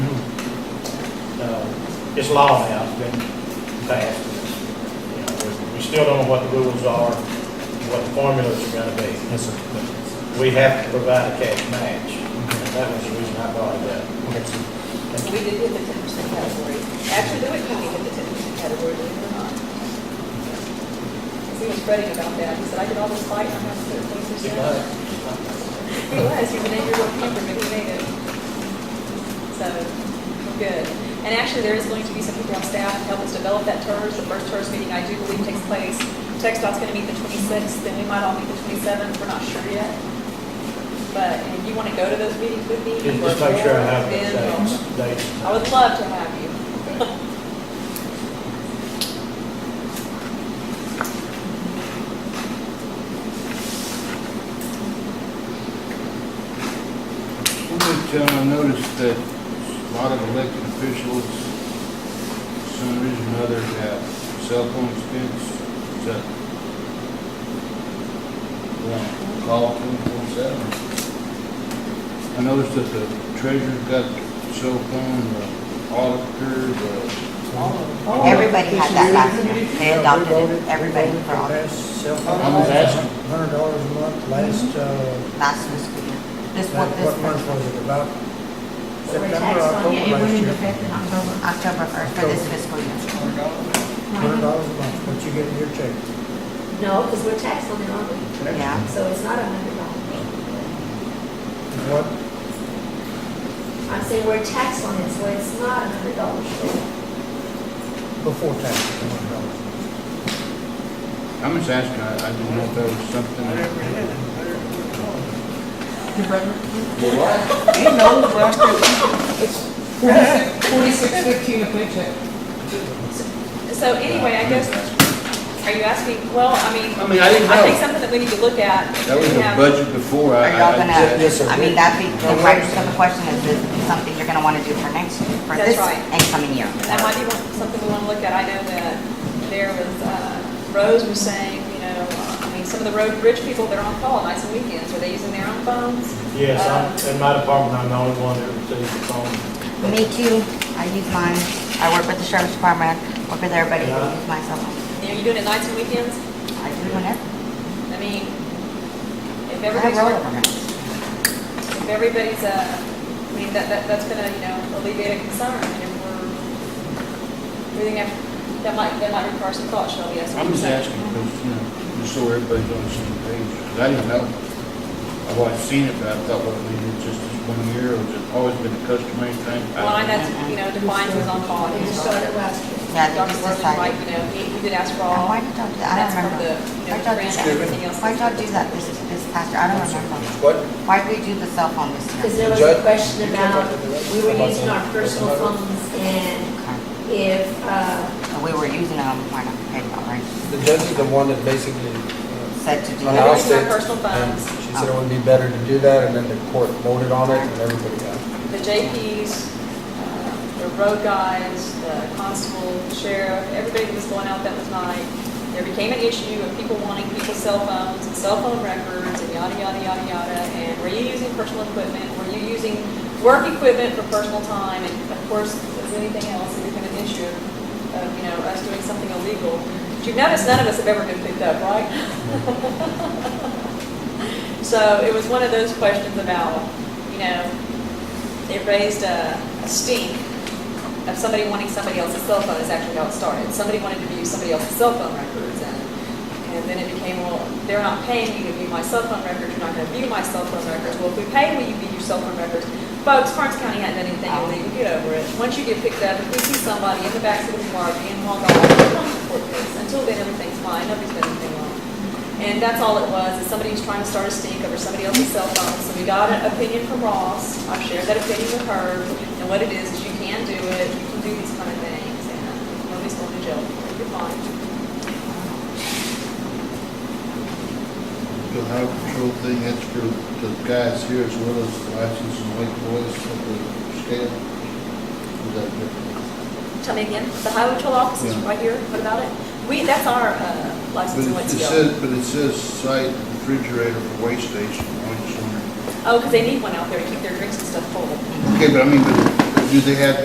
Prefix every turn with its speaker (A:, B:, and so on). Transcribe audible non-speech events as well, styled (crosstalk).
A: uh, it's law now, it's been passed. You know, we- We still don't know what the rules are, and what the formulas are gonna be.
B: Yes, sir.
A: We have to provide a cash match, and that was the reason I brought it up.
B: Okay, sir.
C: We did hit the ten percent category. Actually, Louis County hit the ten percent category, believe it or not. 'Cause He was fretting about that. He said, I did all this fighting, I'm not thirteen
A: It
C: percent.
A: might-
C: He was, he was an angry little camper, but he made it. So, good. And actually, there is going to be some people on staff to help us develop that TERS. The first TERS meeting, I do believe, takes place. TechDOT's going to meet the 26th, then we might all meet the 27th, we're not sure yet. But if you want to go to those meetings with me.
A: Just just make sure I have the
C: then we'll-
A: dates, dates.
C: I would love to have you.
D: John, I noticed that a lot of elected officials, for some reason or another, have cell phone expense. Is that? Well, Call twenty-four seven. I noticed that the treasurer's got cell phone, the auditor, the.
E: Everybody had that last year. They adopted it, everybody for all,
D: I'm just asking.
F: Hundred dollars a month last, uh,
E: last fiscal year. This one,
F: last-
E: this
F: what month
E: one,
F: was it, about
G: So we're
F: September,
G: taxed on
F: October
G: it, it went
F: last
G: into
F: year?
G: effect in October.
E: October first, for this fiscal year.
F: Hundred dollars a month, what you get in your check.
G: No, because we're taxed on it, aren't
E: Yeah,
G: we? So it's not a hundred dollars.
F: What,
G: I'm saying we're taxed on it, so it's not a hundred dollars.
F: before taxes, hundred dollars.
D: I'm just asking, I, I didn't know if there was something.
H: Forty-six fifteen a paycheck.
C: So anyway, I guess, are you asking, well, I mean,
D: I mean, I didn't
C: I think
D: know.
C: something that we need to look at.
D: That was
C: we
D: the
C: have-
D: budget before. I-
E: are y'all
D: Uh, I-
E: gonna,
F: yes, sir.
E: I mean, that'd be, the practical question is, this something you're gonna wanna do for next, for
C: That's
E: this
C: right.
E: incoming year?
C: That might be one- something we want to look at. I know that there was, uh, Rose was saying, you know, I mean, some of the road bridge people, they're on call nights and weekends. Are they using their own phones?
A: Yes,
C: Uh,
A: I'm, in my department, I'm the only one that receives the phone.
E: Me too, I use mine, I work with the sheriff's department, work with everybody,
A: Yeah.
E: I use my cell phone.
C: You know, you doing it nights and weekends?
E: I do whenever,
C: I mean, if
E: I have
C: everybody's
E: roller
C: working.
E: permits.
C: if everybody's, uh, I mean, that, that, that's gonna, you know, alleviate a concern, and if we're, we think that, that might, that might require some thought, Shelby, yes.
D: I'm just asking, because, you know, just so everybody's on the same page, 'cause I didn't know. I've always seen it, but I thought, well, maybe it's just this one year, or has it always been a customary thing? I don't
C: Line
D: know.
C: that's, you know, defines who's on call,
G: We
C: and who's
G: just
C: not.
G: started last year.
E: Yeah, they
C: Dr.
E: just
C: Worthing, right,
E: decided.
C: you know, he, he did ask for all.
E: Why did y'all do that? I
C: That's
E: don't
C: from the, you
E: remember.
C: know,
E: Why'd
C: the grant
E: y'all do
C: and everything else.
E: that? Why'd y'all do that this, this past year? I don't remember.
I: What?
E: Why'd we do the cell phone this year?
G: Because there was a question about, we were using our personal phones and
E: Okay.
G: if, uh,
E: We were using them, why not pay them, right?
I: The judge is the one that basically uh,
E: Said to do
C: Well, now-
E: that.
I: announced
C: Using our
I: it.
C: personal
I: and
C: phones.
I: She said it would be better to do that, and then the court voted on it, and everybody got it.
C: The JPs, uh, the road guys, the constable, the sheriff, everybody that was going out that was night, there became an issue of people wanting people's cell phones and cell phone records and yada, yada, yada, yada. And were you using personal equipment? Were you using work equipment for personal time? And of course, as anything else, it became an issue of, you know, us doing something illegal. But you've noticed none of us have ever been picked up, (laughs) right? So it was one of those questions about, you know, it raised a, a stink of somebody wanting somebody else's cell phone is actually how it started. Somebody wanted to use somebody else's cell phone records and, and then it became, well, they're not paying me to view my cell phone records, you're not gonna view my cell phone records. Well, if we pay, will you view your cell phone records? Folks, Karnes County hadn't done anything illegal, get over it. Once you get picked up, if we see somebody in the backseat of a car being hauled off, we're going to report this. Until then, everything's fine, nobody's done anything wrong. And that's all it was, is somebody was trying to start a stink over somebody else's cell phone. So we got an opinion from Ross, I've shared that opinion with her, and what it is, is you can do it, you can do these kind of things, and nobody's going to jail, for it. you're fine.
D: The highway patrol thing, that's for the guys here as well as the license and white boys at the scale. Is that different?
C: Tell me again, the highway patrol office is
D: Yeah.
C: right here, what about it? We, that's our uh, license and
D: But it
C: what's
D: says, but it says site refrigerator for waste station, I just wondering.
C: Oh, because they need one out there to keep their drinks and stuff full.
D: Okay, but I mean, but do they have